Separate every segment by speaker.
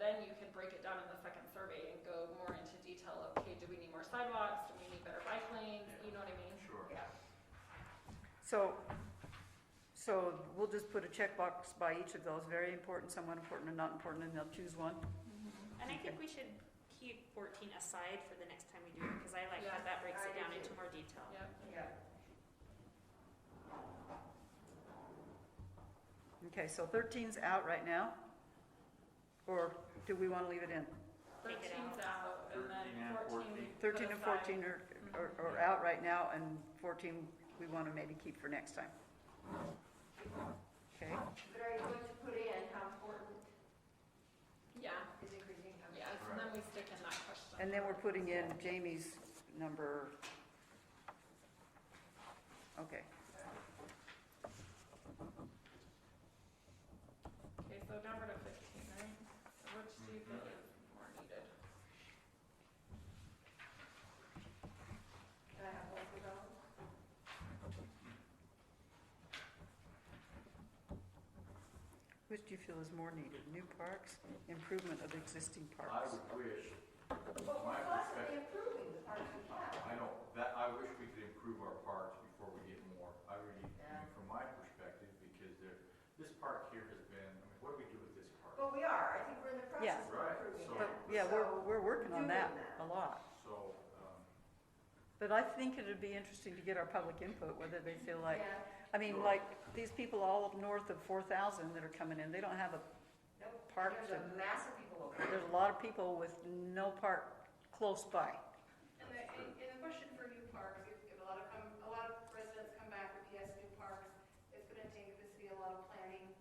Speaker 1: then you can break it down in the second survey and go more into detail, okay, do we need more sidewalks, do we need better bike lanes, you know what I mean?
Speaker 2: Sure.
Speaker 1: Yeah,
Speaker 3: So, so we'll just put a checkbox by each of those, very important, somewhat important, and not important, and they'll choose one.
Speaker 1: Mm-hmm.
Speaker 4: And I think we should keep fourteen aside for the next time we do it, because I like
Speaker 1: Yeah,
Speaker 4: how that breaks
Speaker 1: I
Speaker 4: it
Speaker 1: do
Speaker 4: down
Speaker 1: too.
Speaker 4: into more detail.
Speaker 1: yeah.
Speaker 3: Okay, so thirteen's out right now? Or do we wanna leave it in?
Speaker 4: Take it
Speaker 1: Thirteen's out, and then
Speaker 2: 13 and
Speaker 1: fourteen we put
Speaker 3: Thirteen and
Speaker 1: aside. Mm-hmm.
Speaker 3: fourteen are, are, are out right now, and fourteen we wanna maybe keep for next time. Okay,
Speaker 5: But are you going to put in how important
Speaker 1: Yeah,
Speaker 5: is increasing? how-
Speaker 1: yeah, so then we stick in that question.
Speaker 3: and then we're putting in Jamie's number. Okay,
Speaker 1: Okay, so now we're to fifteen, right? So which do you think is more needed?
Speaker 5: Can I have both of those?
Speaker 3: which do you feel is more needed, new parks, improvement of existing
Speaker 2: I
Speaker 3: parks?
Speaker 2: would wish,
Speaker 5: But
Speaker 2: My
Speaker 5: we're
Speaker 2: perspective-
Speaker 5: constantly improving the parks we have.
Speaker 2: I don't, that, I wish we could improve our parks before we get more. I really, I mean, from my perspective, because there, this park here has been, I mean, what do we do with this park?
Speaker 5: But we are, I think we're in the
Speaker 3: Yeah.
Speaker 5: process of
Speaker 2: Right,
Speaker 5: improving
Speaker 2: so-
Speaker 3: But,
Speaker 5: that.
Speaker 3: yeah, we're,
Speaker 5: So-
Speaker 3: we're working on
Speaker 5: doing
Speaker 3: that
Speaker 5: that.
Speaker 3: a lot.
Speaker 2: So, um,
Speaker 3: But I think it'd be interesting to get our public input, whether they feel like,
Speaker 5: Yeah.
Speaker 3: I mean, like, these people all up north of four thousand that are coming in, they don't have a,
Speaker 5: Nope.
Speaker 3: Parks
Speaker 5: There's a
Speaker 3: and-
Speaker 5: mass of people over there.
Speaker 3: there's a lot of people with no park close by.
Speaker 6: And the, and and the question for new parks, if, if a lot of, come a lot of residents come back with, yes, new parks, it's gonna take the city a lot of planning,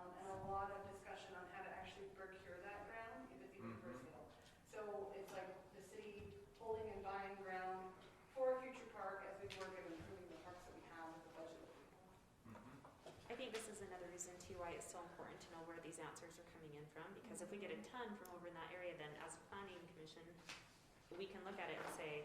Speaker 6: um, and a lot of discussion on how to actually procure that ground, if it's even for
Speaker 2: Mhm.
Speaker 6: sale. So it's like the city holding and buying ground for a future park as we work at improving the parks that we have with the budget. that we have.
Speaker 2: mhm.
Speaker 4: I think this is another reason too why it's so important to know where these answers are coming in from, because if we get a ton from over in that area, then as a planning commission, we can look at it and say,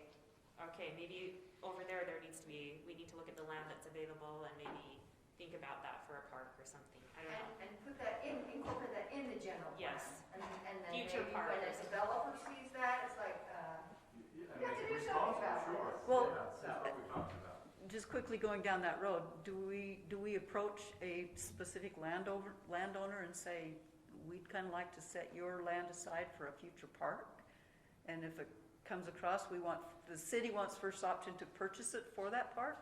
Speaker 4: okay, maybe over there, there needs to be, we need to look at the land that's available and maybe think about that for a park or something, I don't
Speaker 5: And,
Speaker 4: know.
Speaker 5: and put that in, incorporate that in the general. plan.
Speaker 4: Yes.
Speaker 5: And, and then maybe
Speaker 4: Future
Speaker 5: when a
Speaker 4: parks.
Speaker 5: developer sees that, it's like, uh,
Speaker 2: You- you- I
Speaker 5: We have
Speaker 2: mean,
Speaker 5: to do something
Speaker 2: responsible,
Speaker 5: about
Speaker 2: sure.
Speaker 5: this.
Speaker 3: Well-
Speaker 2: Yeah, That's what we talked about.
Speaker 3: Just quickly going down that road, do we, do we approach a specific landowner, landowner and say, we'd kind of like to set your land aside for a future park? And if it comes across, we want, the city wants first option to purchase it for that park?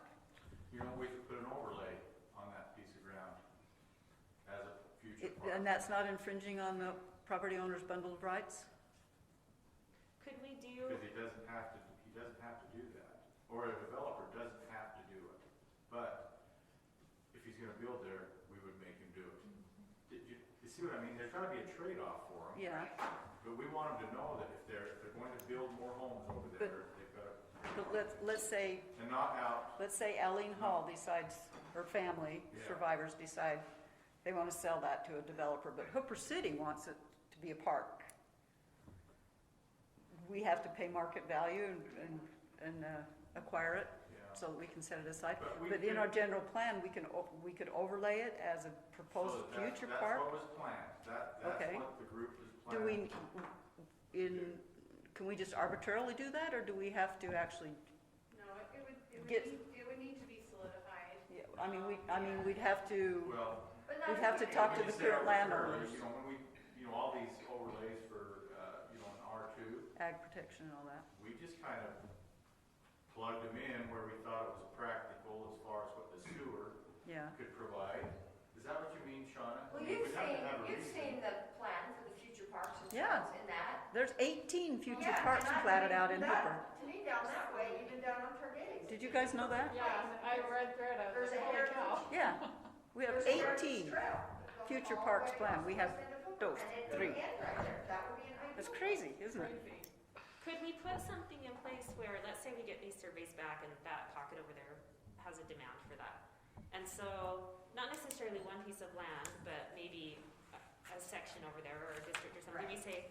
Speaker 2: You know, we could put an overlay on that piece of ground as a future
Speaker 3: It-
Speaker 2: park.
Speaker 3: And that's not infringing on the property owner's bundle of rights?
Speaker 4: Could we do,
Speaker 2: Because he doesn't have to, he doesn't have to do that, or a developer doesn't have to do it. But if he's gonna build there, we would make him do it.
Speaker 3: Mm-hmm.
Speaker 2: Did you, you see what I mean? There's gotta be a trade-off for him.
Speaker 3: Yeah,
Speaker 2: But we want him to know that if they're, if they're going to build more homes over there, they've gotta,
Speaker 3: but let's, let's say,
Speaker 2: and not out,
Speaker 3: let's say Eileen Hall decides, her family,
Speaker 2: Yeah.
Speaker 3: survivors decide they want to sell that to a developer, but Hooper City wants it to be a park. We have to pay market value and, and, and uh, acquire it
Speaker 2: yeah.
Speaker 3: so that we can set it aside.
Speaker 2: But we
Speaker 3: But in
Speaker 2: could-
Speaker 3: our general plan, we can, o- we could overlay it as a proposed
Speaker 2: So that-
Speaker 3: future
Speaker 2: That's
Speaker 3: park.
Speaker 2: what was planned. That, that's
Speaker 3: Okay.
Speaker 2: what the group is
Speaker 3: Do
Speaker 2: planning.
Speaker 3: we, in, can we just arbitrarily do that, or do we have to actually,
Speaker 6: No, it it would, it would
Speaker 3: Get-
Speaker 6: need, it would need to be solidified.
Speaker 3: I mean, we, I mean, we'd have to,
Speaker 2: Well,
Speaker 5: but not.
Speaker 3: we'd have to
Speaker 2: Yeah,
Speaker 3: talk to
Speaker 2: when you
Speaker 3: the
Speaker 2: say
Speaker 3: current
Speaker 2: arbitrarily,
Speaker 3: landowners,
Speaker 2: You know, when we, you know, all these overlays for, uh, you know, an R two,
Speaker 3: ag protection and all that.
Speaker 2: we just kind of plugged them in where we thought it was practical as far as what the sewer
Speaker 3: Yeah,
Speaker 2: could provide. Is that what you mean, Shauna?
Speaker 5: Well,
Speaker 2: We would
Speaker 5: you've
Speaker 2: have to
Speaker 5: seen,
Speaker 2: have a
Speaker 5: you've
Speaker 2: reason.
Speaker 5: seen the plan for the future parks and
Speaker 3: Yeah.
Speaker 5: things in that.
Speaker 3: there's eighteen future
Speaker 5: Yeah,
Speaker 3: parks
Speaker 5: and I
Speaker 3: platted
Speaker 5: mean,
Speaker 3: out in
Speaker 5: that-
Speaker 3: Hooper.
Speaker 5: To me, down that way, even down on Targetti's.
Speaker 3: Did you guys know that?
Speaker 1: Yeah, I read through it, I was
Speaker 5: There's a
Speaker 1: like, holy cow.
Speaker 5: heritage.
Speaker 3: Yeah, we have
Speaker 5: there's a
Speaker 3: eighteen.
Speaker 5: heritage trail that goes
Speaker 3: future
Speaker 5: all the
Speaker 3: parks
Speaker 5: way
Speaker 3: planned.
Speaker 5: across
Speaker 3: We
Speaker 5: the
Speaker 3: have
Speaker 5: west end of Hooper,
Speaker 3: those
Speaker 5: and it'd
Speaker 3: three.
Speaker 5: end right there. That would be an ideal.
Speaker 3: That's crazy, isn't it?
Speaker 1: Crazy.
Speaker 4: could we put something in place where, let's say we get these surveys back and that pocket over there has a demand for that? And so, not necessarily one piece of land, but maybe a, a section over there or a district or something, we say,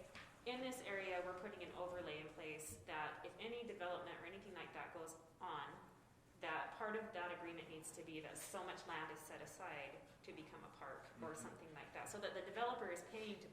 Speaker 4: in this area, we're putting an overlay in place that if any development or anything like that goes on, that part of that agreement needs to be that so much land is set aside to become a park or
Speaker 2: Mhm.
Speaker 4: something like that, so that the developer is paying to